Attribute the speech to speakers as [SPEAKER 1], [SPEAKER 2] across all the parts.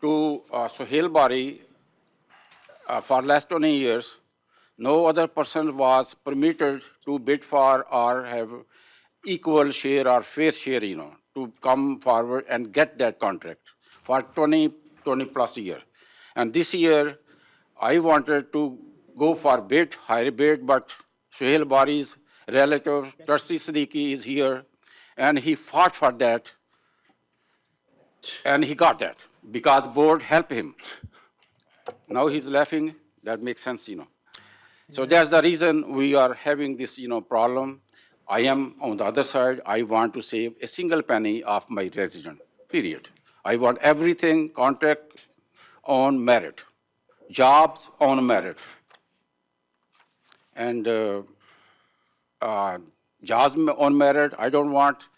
[SPEAKER 1] to uh, Sohail Bari uh, for last 20 years. No other person was permitted to bid for or have equal share or fair share, you know, to come forward and get that contract for 20, 20 plus year. And this year, I wanted to go for bid, higher bid, but Sohail Bari's relative, Tarsi Siddiqui, is here, and he fought for that, and he got that because board helped him. Now he's laughing. That makes sense, you know. So that's the reason we are having this, you know, problem. I am on the other side. I want to save a single penny of my resident. Period. I want everything contract on merit, jobs on merit, and uh, uh, jobs on merit. I don't want,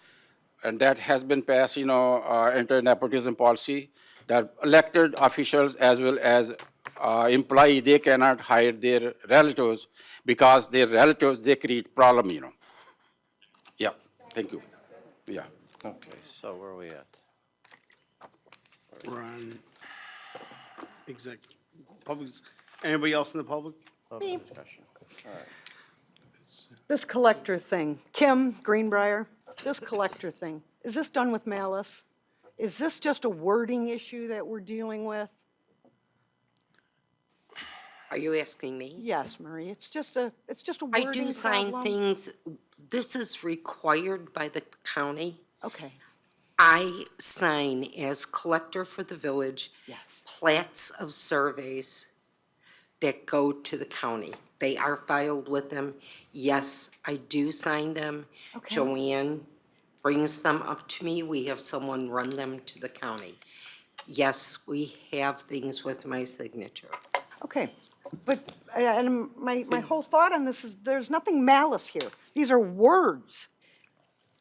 [SPEAKER 1] and that has been passed, you know, uh, enter nepotism policy, that elected officials as well as uh, employee, they cannot hire their relatives because their relatives, they create problem, you know. Yeah, thank you. Yeah.
[SPEAKER 2] Okay, so where are we at?
[SPEAKER 3] We're on exec, public, anybody else in the public?
[SPEAKER 2] Public discussion.
[SPEAKER 4] This collector thing, Kim Greenbrier, this collector thing, is this done with malice? Is this just a wording issue that we're dealing with?
[SPEAKER 5] Are you asking me?
[SPEAKER 4] Yes, Marie, it's just a, it's just a
[SPEAKER 5] I
[SPEAKER 4] wording
[SPEAKER 5] do sign
[SPEAKER 4] problem?
[SPEAKER 5] things, this is required by the county.
[SPEAKER 4] Okay,
[SPEAKER 5] I sign as collector for the village.
[SPEAKER 4] Yes.
[SPEAKER 5] Plats of surveys that go to the county. They are filed with them. Yes, I do sign them.
[SPEAKER 4] Okay.
[SPEAKER 5] Joanne brings them up to me. We have someone run them to the county. Yes, we have things with my signature.
[SPEAKER 4] okay. But, uh, and my, my whole thought on this is, there's nothing malice here. These are words.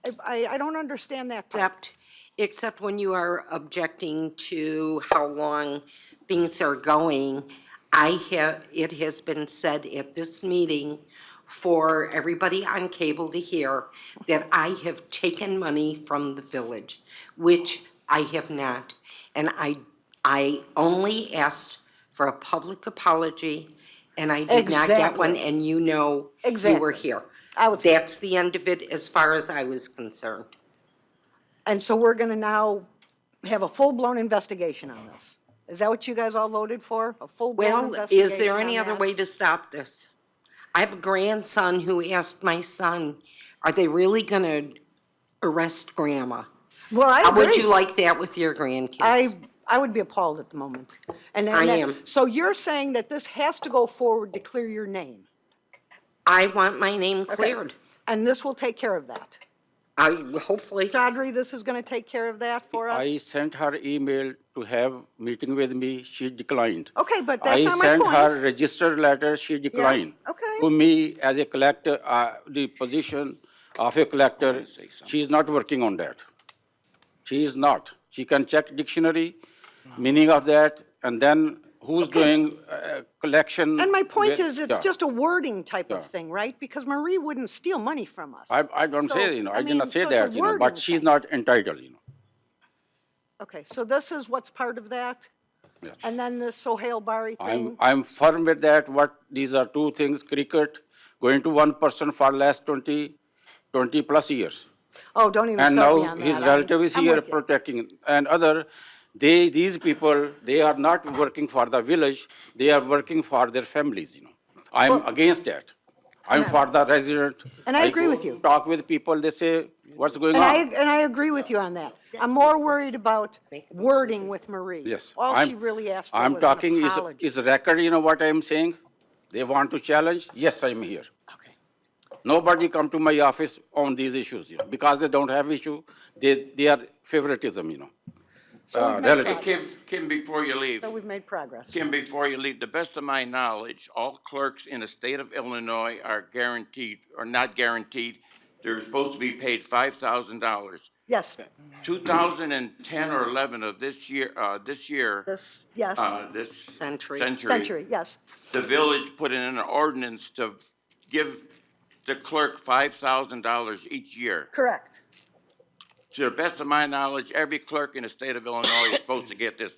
[SPEAKER 4] I- I, I don't understand that part.
[SPEAKER 5] Except, except when you are objecting to how long things are going, I have, it has been said at this meeting for everybody on cable to hear that I have taken money from the village, which I have not. And I, I only asked for a public apology, and I did not get one,
[SPEAKER 4] Exactly.
[SPEAKER 5] and you know you were
[SPEAKER 4] Exactly.
[SPEAKER 5] here.
[SPEAKER 4] I was here.
[SPEAKER 5] That's the end of it as far as I was concerned.
[SPEAKER 4] And so we're gonna now have a full-blown investigation on this. Is that what you guys all voted for? A full-blown
[SPEAKER 5] Well,
[SPEAKER 4] investigation
[SPEAKER 5] is there any
[SPEAKER 4] on
[SPEAKER 5] other
[SPEAKER 4] that?
[SPEAKER 5] way to stop this? I have a grandson who asked my son, are they really gonna arrest grandma?
[SPEAKER 4] Well, I
[SPEAKER 5] How
[SPEAKER 4] agree.
[SPEAKER 5] would you like that with your grandkids?
[SPEAKER 4] I, I would be appalled at the moment. And then
[SPEAKER 5] I
[SPEAKER 4] that-
[SPEAKER 5] am.
[SPEAKER 4] So you're saying that this has to go forward to clear your name?
[SPEAKER 5] I want my name cleared.
[SPEAKER 4] And this will take care of that?
[SPEAKER 5] I, hopefully,
[SPEAKER 4] Chaudhry, this is going to take care of that for us?
[SPEAKER 1] I sent her email to have meeting with me. She declined.
[SPEAKER 4] Okay, but that's not my
[SPEAKER 1] I sent her
[SPEAKER 4] point.
[SPEAKER 1] registered letter. She declined.
[SPEAKER 4] okay.
[SPEAKER 1] To me, as a collector, uh, the position of a collector, she is not working on that. She is not. She can check dictionary, meaning of that, and then who's doing uh, collection.
[SPEAKER 4] And my point
[SPEAKER 1] where-
[SPEAKER 4] is,
[SPEAKER 1] Yeah.
[SPEAKER 4] it's just a wording type of
[SPEAKER 1] Yeah.
[SPEAKER 4] thing, right? Because Marie wouldn't steal money from us.
[SPEAKER 1] I, I don't
[SPEAKER 4] So,
[SPEAKER 1] say, you know,
[SPEAKER 4] I
[SPEAKER 1] I did
[SPEAKER 4] mean,
[SPEAKER 1] not say
[SPEAKER 4] so it's a
[SPEAKER 1] that, you know,
[SPEAKER 4] wording
[SPEAKER 1] but she's
[SPEAKER 4] thing.
[SPEAKER 1] not entitled, you know.
[SPEAKER 4] Okay, so this is what's part of that?
[SPEAKER 1] Yeah.
[SPEAKER 4] And then the Sohail Bari
[SPEAKER 1] I'm,
[SPEAKER 4] thing?
[SPEAKER 1] I'm firm with that, what, these are two things, cricket, going to one person for last 20, 20 plus years.
[SPEAKER 4] Oh, don't even
[SPEAKER 1] And
[SPEAKER 4] start me
[SPEAKER 1] now
[SPEAKER 4] on that.
[SPEAKER 1] his
[SPEAKER 4] I'm-
[SPEAKER 1] relative is
[SPEAKER 4] I'm
[SPEAKER 1] here
[SPEAKER 4] with you.
[SPEAKER 1] protecting, and other, they, these people, they are not working for the village, they are working for their families, you know. I'm against that. I'm for the resident.
[SPEAKER 4] And I agree
[SPEAKER 1] go
[SPEAKER 4] with you.
[SPEAKER 1] Talk with people, they say, what's going
[SPEAKER 4] And I,
[SPEAKER 1] on?
[SPEAKER 4] and I agree with you on that. I'm more worried about wording with Marie.
[SPEAKER 1] Yes.
[SPEAKER 4] All
[SPEAKER 1] I'm-
[SPEAKER 4] she really asked for
[SPEAKER 1] I'm
[SPEAKER 4] was an
[SPEAKER 1] talking is,
[SPEAKER 4] apology.
[SPEAKER 1] is record, you know what I'm saying? They want to challenge, yes, I'm here.
[SPEAKER 4] Okay.
[SPEAKER 1] Nobody come to my office on these issues, you know, because they don't have issue, they, they are favoritism, you know. Uh,
[SPEAKER 6] Hey,
[SPEAKER 1] relative.
[SPEAKER 6] Kim, Kim, before you leave,
[SPEAKER 4] So we've made progress.
[SPEAKER 6] Kim, before you leave, the best of my knowledge, all clerks in the state of Illinois are guaranteed, or not guaranteed, they're supposed to be paid five thousand dollars.
[SPEAKER 4] Yes,
[SPEAKER 6] Two thousand and ten or eleven of this year, uh, this year,
[SPEAKER 4] this, yes,
[SPEAKER 6] uh, this
[SPEAKER 5] Century.
[SPEAKER 4] century, yes.
[SPEAKER 6] the village put in an ordinance to give the clerk five thousand dollars each year.
[SPEAKER 4] Correct.
[SPEAKER 6] To the best of my knowledge, every clerk in the state of Illinois is supposed to get this